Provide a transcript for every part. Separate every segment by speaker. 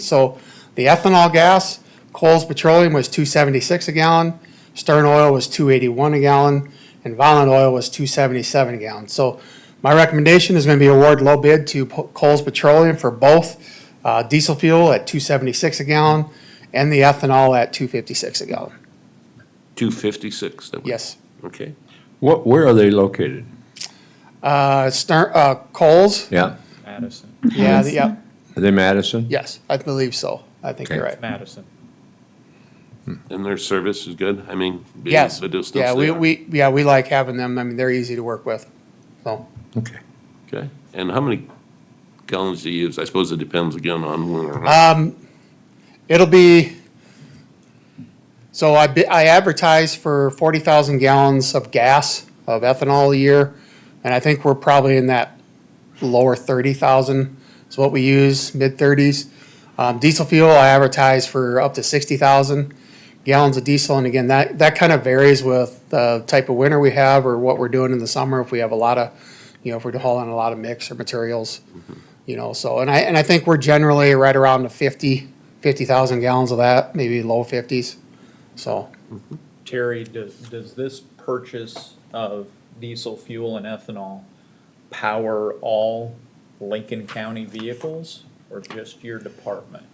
Speaker 1: So the ethanol gas, Coles Petroleum was two seventy-six a gallon, Stern Oil was two eighty-one a gallon, and Volund Oil was two seventy-seven a gallon. So my recommendation is gonna be award low bid to Po- Coles Petroleum for both, uh, diesel fuel at two seventy-six a gallon and the ethanol at two fifty-six a gallon.
Speaker 2: 256? that we-
Speaker 1: Yes.
Speaker 2: Okay.
Speaker 3: What, where are they located?
Speaker 1: Uh, Stern, uh, Coles,
Speaker 3: Yeah.
Speaker 4: Madison,
Speaker 1: yeah, the- yeah,
Speaker 3: Are they Madison?
Speaker 1: yes, I believe so. I think you're
Speaker 3: Okay.
Speaker 1: right.
Speaker 4: Madison.
Speaker 2: And their service is good? I mean, being
Speaker 1: Yes,
Speaker 2: the distance
Speaker 1: yeah,
Speaker 2: they
Speaker 1: we,
Speaker 2: are.
Speaker 1: we, yeah, we like having them. I mean, they're easy to work with, so.
Speaker 3: Okay.
Speaker 2: Okay. And how many gallons do you use? I suppose it depends again on where.
Speaker 1: Uh, It'll be, so I, bi- I advertise for forty thousand gallons of gas, of ethanol a year, and I think we're probably in that lower thirty thousand is what we use, mid thirties. Um, diesel fuel, I advertise for up to sixty thousand gallons of diesel, and again, that, that kind of varies with the type of winter we have or what we're doing in the summer, if we have a lot of, you know, if we're hauling a lot of mix or materials you know, so, and I, and I think we're generally right around the 50, 50,000 gallons of that, maybe low 50s. So,
Speaker 4: Terry, does, does this purchase of diesel fuel and ethanol power all Lincoln County vehicles or just your department?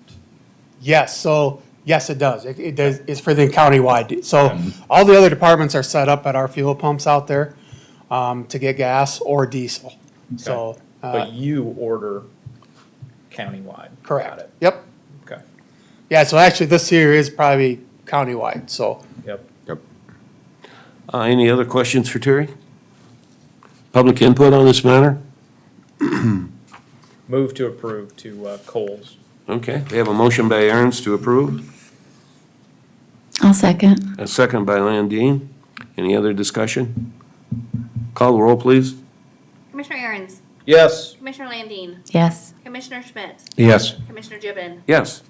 Speaker 1: yes, so, yes, it does. It, it does, it's for the countywide. So all the other departments are set up at our fuel pumps out there um, to get gas or diesel. So, uh,
Speaker 4: But you order countywide? Got
Speaker 1: correct.
Speaker 4: it.
Speaker 1: Yep.
Speaker 4: Okay,
Speaker 1: Yeah, so actually this here is probably countywide, so.
Speaker 4: yep.
Speaker 3: Yep.
Speaker 2: Uh, Any other questions for Terry? Public input on this matter?
Speaker 4: Move to approve to uh, Coles.
Speaker 2: Okay. We have a motion by Aaron's to approve,
Speaker 5: I'll second.
Speaker 2: a second by Landine. Any other discussion? Call the roll, please.
Speaker 6: Commissioner Aaron's,
Speaker 4: Yes.
Speaker 6: Commissioner Landine,
Speaker 5: Yes.
Speaker 6: Commissioner Schmidt,
Speaker 3: Yes.
Speaker 6: Commissioner Gibbon,
Speaker 2: Yes.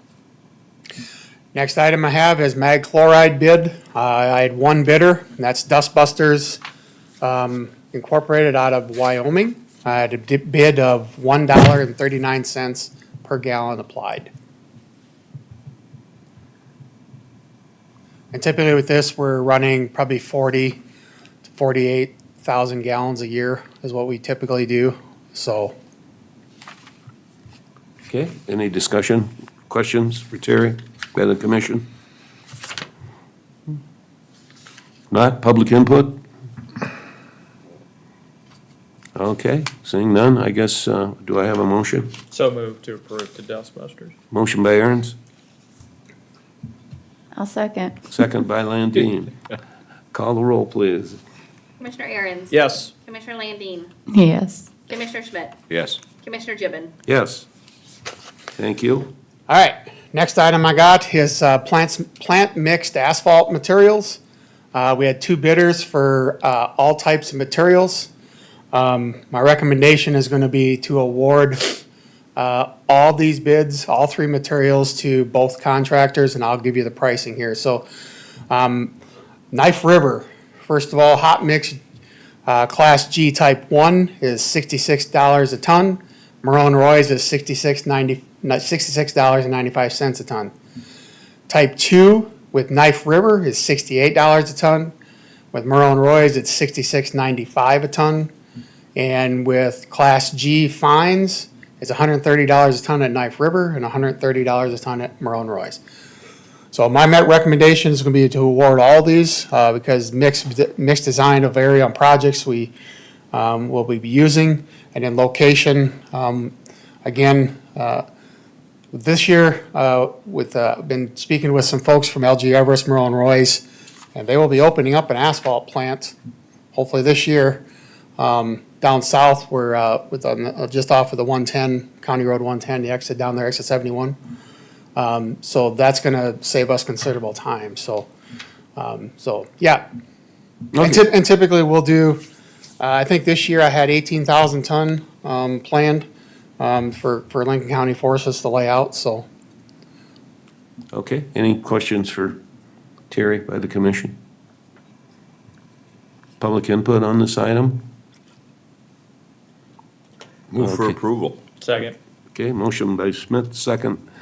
Speaker 1: Next item I have is mag chloride bid. Uh, I had one bidder, and that's Dustbusters um, Incorporated out of Wyoming. I had a di- bid of one dollar and thirty-nine cents per gallon applied. And typically with this, we're running probably forty to forty-eight thousand gallons a year is what we typically do, so.
Speaker 2: Okay. Any discussion, questions for Terry by the commission? Not public input? Okay, seeing none, I guess, uh, do I have a motion?
Speaker 4: So move to approve to Dustbusters.
Speaker 2: Motion by Aaron's,
Speaker 5: I'll second.
Speaker 2: second by Landine. Call the roll, please.
Speaker 6: Commissioner Aaron's.
Speaker 4: Yes.
Speaker 6: Commissioner Landine,
Speaker 5: Yes.
Speaker 6: Commissioner Schmidt,
Speaker 3: Yes.
Speaker 6: Commissioner Gibbon.
Speaker 2: Yes. Thank you.
Speaker 1: All right, next item I got is uh, plants, plant mixed asphalt materials. Uh, We had two bidders for uh, all types of materials. Um, My recommendation is going to be to award uh, all these bids, all three materials to both contractors, and I'll give you the pricing here. So um, Knife River, first of all, hot mix uh, Class G Type 1 is $66 a ton. Marone Roy's is $66.90 $66.95 a ton. Type 2 with Knife River is $68 a ton. With Marone Roy's, it's $66.95 a ton. And with Class G fines, it's $130 a ton at Knife River and $130 a ton at Marone Roy's. So my met recommendation is gonna be to award all these, uh, because mixed, mixed design will vary on projects we, um, will be using. And then location, um, again, uh, this year, uh, with, uh, been speaking with some folks from LG Everest, Merle and Roy's, and they will be opening up an asphalt plant, hopefully this year, um, down south where, uh, with, on the- uh, just off of the one-ten, County Road one-ten, the exit down there, exit seventy-one. Um, So that's gonna save us considerable time, so, um, so, yeah. And typ- and typically, we'll do, uh, I think this year I had eighteen thousand ton, um, planned, um, for, for Lincoln County forces to lay out, so.
Speaker 2: Okay, any questions for Terry by the commission? Public input on this item?
Speaker 3: Move for
Speaker 2: Okay.
Speaker 3: approval.
Speaker 4: Second.
Speaker 2: Okay, motion by Smith, second